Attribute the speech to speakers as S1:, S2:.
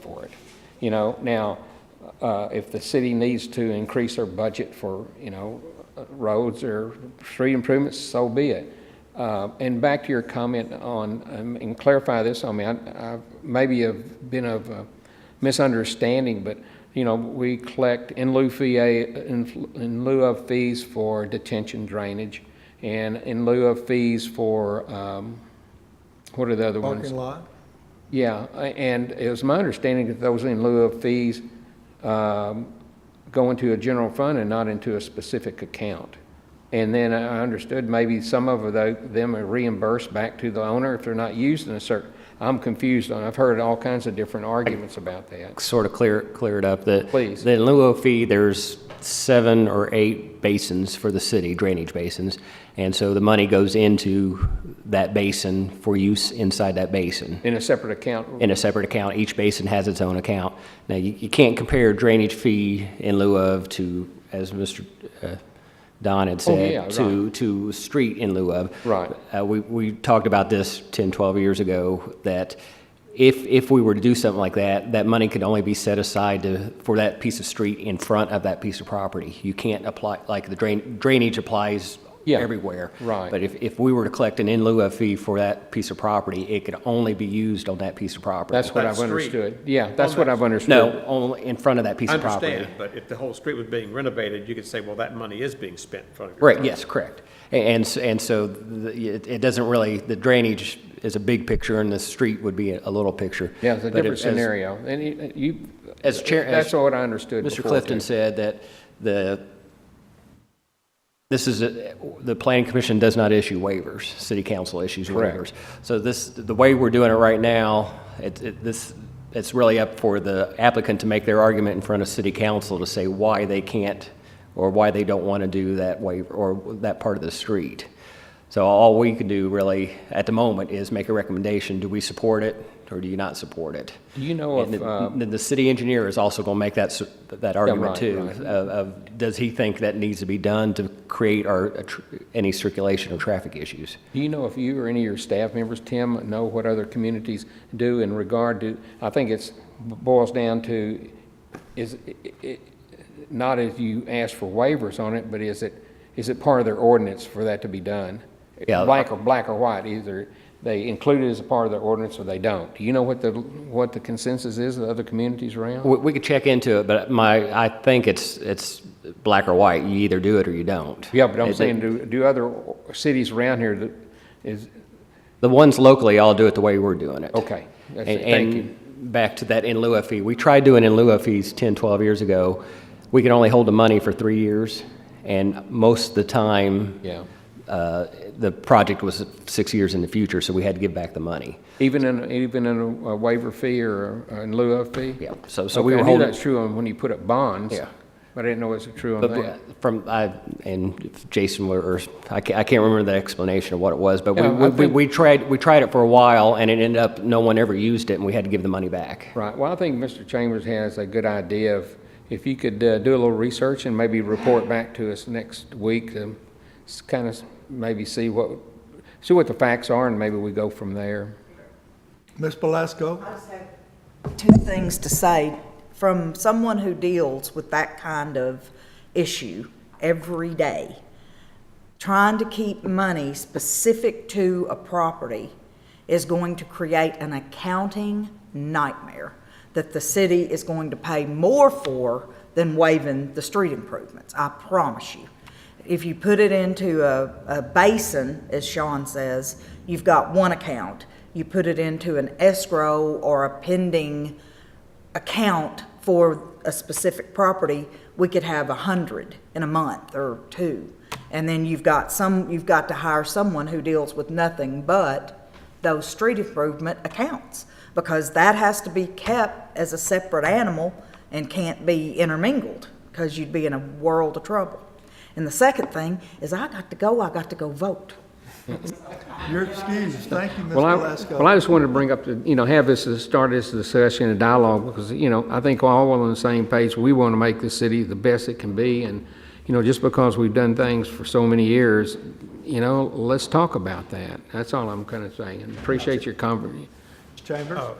S1: for it. You know, now, uh, if the city needs to increase their budget for, you know, roads or street improvements, so be it. Uh, And back to your comment on, um, and clarify this on me, I, I maybe have been of a misunderstanding, but, you know, we collect in lieu fee, in in lieu of fees for detention drainage, and in lieu of fees for, um, what are the other ones?
S2: Parking lot?
S1: Yeah, a- and it was my understanding that those in lieu of fees um, go into a general fund and not into a specific account. And then I understood maybe some of tho- them are reimbursed back to the owner if they're not used in a certain, I'm confused on, I've heard all kinds of different arguments about that.
S3: sort of clear, clear it up, that.
S1: Please.
S3: That in lieu of fee, there's seven or eight basins for the city, drainage basins. And so the money goes into that basin for use inside that basin
S1: In a separate account,
S3: in a separate account. Each basin has its own account. Now, you, you can't compare drainage fee in lieu of to, as Mr. uh, Don had
S1: Oh, yeah,
S3: said, to, to street in lieu of.
S1: Right.
S3: Uh, we, we talked about this 10, 12 years ago, that if, if we were to do something like that, that money could only be set aside to, for that piece of street in front of that piece of property. You can't apply, like the drain, drainage applies
S1: Yeah,
S3: everywhere.
S1: right.
S3: But if, if we were to collect an in lieu of fee for that piece of property, it could only be used on that piece of property.
S1: that's what
S4: That
S1: I've
S4: street.
S1: understood. Yeah, that's
S4: On
S1: what
S4: that-
S1: I've understood.
S3: No, only in front of that piece
S4: I
S3: of property.
S4: understand, but if the whole street was being renovated, you could say, well, that money is being spent in front of your.
S3: Right, yes, correct. A- And, s- and so the- it, it doesn't really, the drainage is a big picture and the street would be a little picture.
S1: Yeah, it's a
S3: But
S1: different
S3: as-
S1: scenario. And you- you,
S3: As chair, as
S1: that's what I understood
S3: Mr.
S1: before,
S3: Clifton
S1: too.
S3: said, that the, this is, a- the planning commission does not issue waivers, city council issues
S1: Correct.
S3: waivers. So this, the way we're doing it right now, it, it, this, it's really up for the applicant to make their argument in front of city council to say why they can't, or why they don't want to do that waiver, or that part of the street. So all we can do really, at the moment, is make a recommendation, do we support it, or do you not support it?
S1: Do you know
S3: And
S1: if,
S3: the-
S1: uh,
S3: Then the city engineer is also going to make that, s- that argument
S1: right,
S3: too.
S1: right.
S3: Of, of, does he think that needs to be done to create our, uh, tr- any circulation or traffic issues?
S1: Do you know if you or any of your staff members, Tim, know what other communities do in regard to, I think it's boils down to, is, it- it- not if you ask for waivers on it, but is it, is it part of their ordinance for that to be done?
S3: Yeah.
S1: Black or, black or white, either they include it as a part of their ordinance or they don't. Do you know what the, what the consensus is of other communities around?
S3: We, we could check into it, but my, I think it's, it's black or white. You either do it or you don't.
S1: Yeah, but I'm
S3: It-
S1: saying, do, do other cities around here that is,
S3: The ones locally all do it the way we're doing it.
S1: okay, that's
S3: And-
S1: it. thank you.
S3: And back to that in lieu of fee, we tried doing in lieu of fees 10, 12 years ago. We could only hold the money for three years, and most of the time.
S1: Yeah.
S3: uh, the project was six years in the future, so we had to give back the money.
S1: Even in, even in a waiver fee or a- in lieu of fee?
S3: Yeah, so- so we were
S1: Okay, I knew
S3: holding-
S1: that's true on when you put up bonds.
S3: Yeah.
S1: But I didn't know it was true on
S3: But
S1: that.
S3: from, I, and if Jason were, or, I can't, I can't remember the explanation of what it was, but we,
S1: Yeah, I
S3: we- we,
S1: think-
S3: we tried, we tried it for a while, and it ended up, no one ever used it, and we had to give the money back.
S1: Right, well, I think Mr. Chambers has a good idea of, if you could uh, do a little research and maybe report back to us next week, um, kind of maybe see what, see what the facts are and maybe we go from there.
S2: Ms. Belasco?
S5: two things to say from someone who deals with that kind of issue every day. Trying to keep money specific to a property is going to create an accounting nightmare that the city is going to pay more for than waiving the street improvements, I promise you. If you put it into a, a basin, as Sean says, you've got one account. You put it into an escrow or a pending account for a specific property, we could have a hundred in a month or two. And then you've got some, you've got to hire someone who deals with nothing but those street improvement accounts. Because that has to be kept as a separate animal and can't be intermingled, because you'd be in a world of trouble. And the second thing is I got to go, I got to go vote.
S2: You're excused. Thank you, Ms.
S1: Well, I,
S2: Belasco.
S1: well, I just wanted to bring up, the- you know, have this, start this discussion and dialogue, because, you know, I think all on the same page, we want to make the city the best it can be, and, you know, just because we've done things for so many years, you know, let's talk about that. That's all I'm kind of saying. Appreciate your conversation.
S2: Ms. Chambers?
S4: Oh,